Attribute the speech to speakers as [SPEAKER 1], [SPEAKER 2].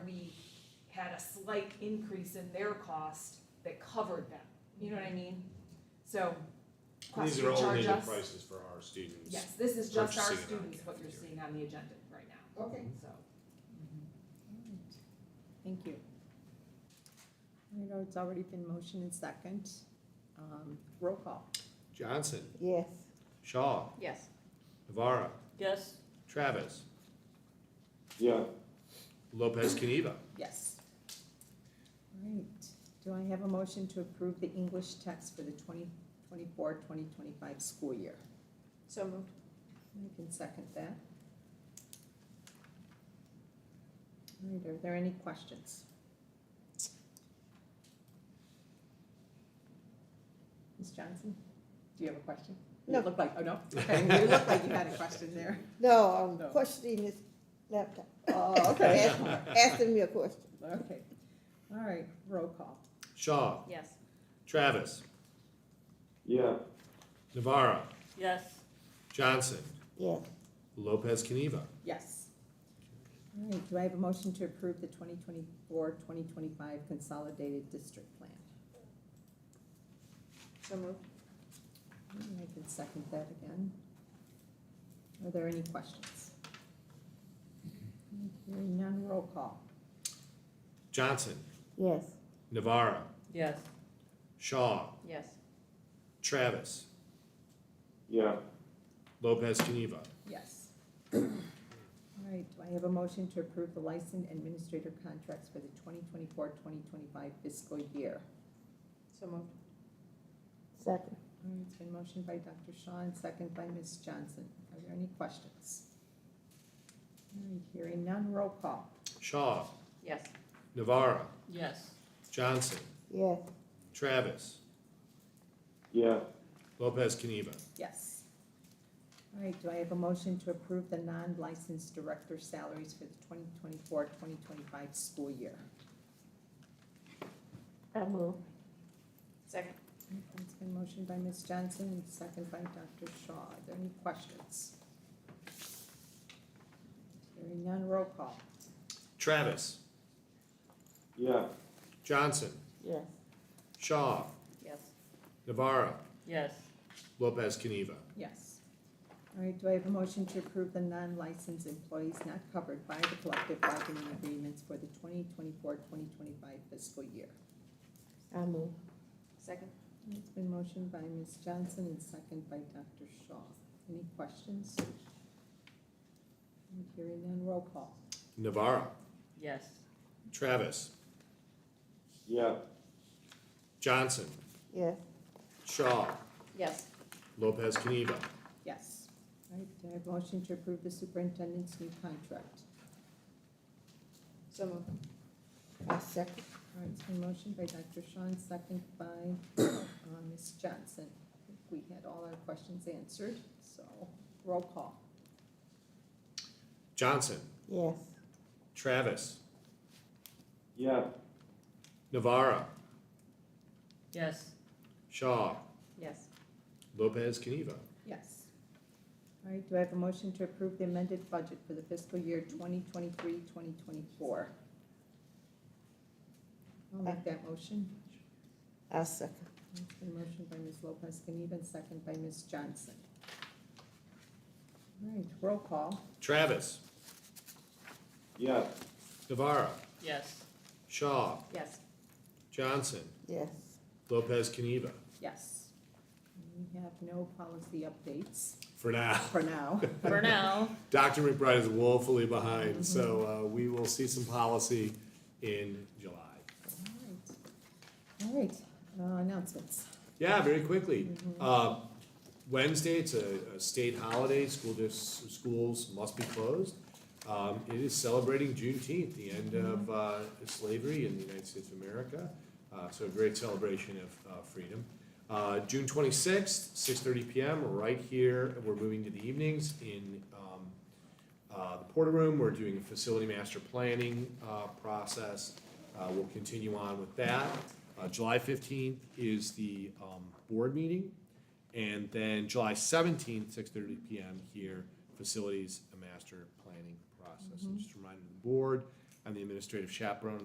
[SPEAKER 1] had a slight increase in their cost that covered them, you know what I mean? So, cost
[SPEAKER 2] These
[SPEAKER 1] to
[SPEAKER 2] are only
[SPEAKER 1] charge
[SPEAKER 2] the
[SPEAKER 1] us,
[SPEAKER 2] prices for our students.
[SPEAKER 1] yes, this is just our
[SPEAKER 2] purchasing it on
[SPEAKER 1] students, what you're
[SPEAKER 2] cafeteria.
[SPEAKER 1] seeing on the agenda right now,
[SPEAKER 3] Okay,
[SPEAKER 1] so.
[SPEAKER 4] Thank you. I know it's already been motion and second. Um, Roll call.
[SPEAKER 5] Johnson,
[SPEAKER 3] yes.
[SPEAKER 5] Shaw,
[SPEAKER 4] Yes.
[SPEAKER 5] Navara,
[SPEAKER 6] yes,
[SPEAKER 5] Travis,
[SPEAKER 2] Yeah.
[SPEAKER 5] Lopez Caniva.
[SPEAKER 4] Yes. All right, do I have a motion to approve the English text for the 2024, 2025 school year? So moved. You can second that. All right, are there any questions? Ms. Johnson, do you have a question? You
[SPEAKER 3] No.
[SPEAKER 4] look like, oh, no? Okay, you look like you had a question there.
[SPEAKER 3] No,
[SPEAKER 4] No.
[SPEAKER 3] I'm questioning this laptop.
[SPEAKER 4] Oh, okay.
[SPEAKER 3] Ask- Asking me a question.
[SPEAKER 4] Okay, all right, roll call.
[SPEAKER 5] Shaw,
[SPEAKER 6] yes,
[SPEAKER 5] Travis,
[SPEAKER 2] Yeah.
[SPEAKER 5] Navara,
[SPEAKER 6] yes,
[SPEAKER 5] Johnson,
[SPEAKER 3] Yes,
[SPEAKER 5] Lopez Caniva.
[SPEAKER 4] Yes. All right, do I have a motion to approve the 2024, 2025 consolidated district plan? So moved. I can second that again. Are there any questions? Hearing none, roll call.
[SPEAKER 5] Johnson,
[SPEAKER 3] yes,
[SPEAKER 5] Navara,
[SPEAKER 6] yes,
[SPEAKER 5] Shaw,
[SPEAKER 6] yes,
[SPEAKER 5] Travis,
[SPEAKER 2] Yeah.
[SPEAKER 5] Lopez Caniva.
[SPEAKER 4] Yes. All right, do I have a motion to approve the license administrator contracts for the 2024, 2025 fiscal year? So moved.
[SPEAKER 3] second,
[SPEAKER 4] All right, It's been motioned by Dr. Shaw and second by Ms. Johnson. Are there any questions? All right, Hearing none, roll call.
[SPEAKER 5] Shaw,
[SPEAKER 6] yes,
[SPEAKER 5] Navara,
[SPEAKER 6] yes,
[SPEAKER 5] Johnson,
[SPEAKER 3] yes,
[SPEAKER 5] Travis,
[SPEAKER 2] Yeah.
[SPEAKER 5] Lopez Caniva.
[SPEAKER 4] Yes. All right, do I have a motion to approve the non-licensed director salaries for the 2024-2025 school year?
[SPEAKER 3] I move,
[SPEAKER 6] second,
[SPEAKER 4] It's been motioned by Ms. Johnson and second by Dr. Shaw. Are there any questions? Hearing none, roll call.
[SPEAKER 5] Travis,
[SPEAKER 2] Yeah.
[SPEAKER 5] Johnson,
[SPEAKER 3] yes,
[SPEAKER 5] Shaw,
[SPEAKER 6] yes,
[SPEAKER 5] Navara,
[SPEAKER 6] yes,
[SPEAKER 5] Lopez Caniva.
[SPEAKER 4] Yes. All right, do I have a motion to approve the non-licensed employees not covered by the collective bargaining agreements for the 2024-2025 fiscal year?
[SPEAKER 3] I move,
[SPEAKER 6] second,
[SPEAKER 4] It's been motioned by Ms. Johnson and second by Dr. Shaw. Any questions? Hearing none, roll call.
[SPEAKER 5] Navara,
[SPEAKER 6] yes,
[SPEAKER 5] Travis,
[SPEAKER 2] Yeah.
[SPEAKER 5] Johnson,
[SPEAKER 3] yes,
[SPEAKER 5] Shaw,
[SPEAKER 6] yes,
[SPEAKER 5] Lopez Caniva.
[SPEAKER 4] Yes. All right, do I have a motion to approve the superintendent's new contract?
[SPEAKER 6] so moved,
[SPEAKER 3] I second,
[SPEAKER 4] All right, it's been motioned by Dr. Sean, second by uh, Ms. Johnson. I think We had all our questions answered, so roll call.
[SPEAKER 5] Johnson,
[SPEAKER 3] yes,
[SPEAKER 5] Travis,
[SPEAKER 2] Yeah.
[SPEAKER 5] Navara,
[SPEAKER 6] yes,
[SPEAKER 5] Shaw,
[SPEAKER 6] yes,
[SPEAKER 5] Lopez Caniva.
[SPEAKER 4] Yes. All right, do I have a motion to approve the amended budget for the fiscal year 2023, 2024? I'll make that motion.
[SPEAKER 3] I second,
[SPEAKER 4] It's been motioned by Ms. Lopez Caniva and second by Ms. Johnson. All right, roll call.
[SPEAKER 5] Travis,
[SPEAKER 2] Yeah.
[SPEAKER 5] Navara,
[SPEAKER 6] yes,
[SPEAKER 5] Shaw,
[SPEAKER 6] yes,
[SPEAKER 5] Johnson,
[SPEAKER 3] yes,
[SPEAKER 5] Lopez Caniva.
[SPEAKER 4] Yes. We have no policy updates
[SPEAKER 5] For now.
[SPEAKER 4] for now.
[SPEAKER 6] for now,
[SPEAKER 5] Dr. McBride is woefully behind, so uh, we will see some policy in July.
[SPEAKER 4] All right, Uh, announcements.
[SPEAKER 5] Yeah, very quickly. Uh, Wednesday, it's a, a state holiday, school dis- schools must be closed. Um, it is celebrating Juneteenth, the end of, uh, slavery in the United States of America, uh, so a great celebration of, uh, freedom. Uh, June twenty-sixth, six thirty PM, right here, we're moving to the evenings in, um, uh, the Porter Room, we're doing a facility master planning, uh, process. Uh, we'll continue on with that. Uh, July fifteenth is the, um, board meeting. And then July seventeenth, six thirty PM here, facilities and master planning process. And just a reminder to the board, I'm the administrative chaperone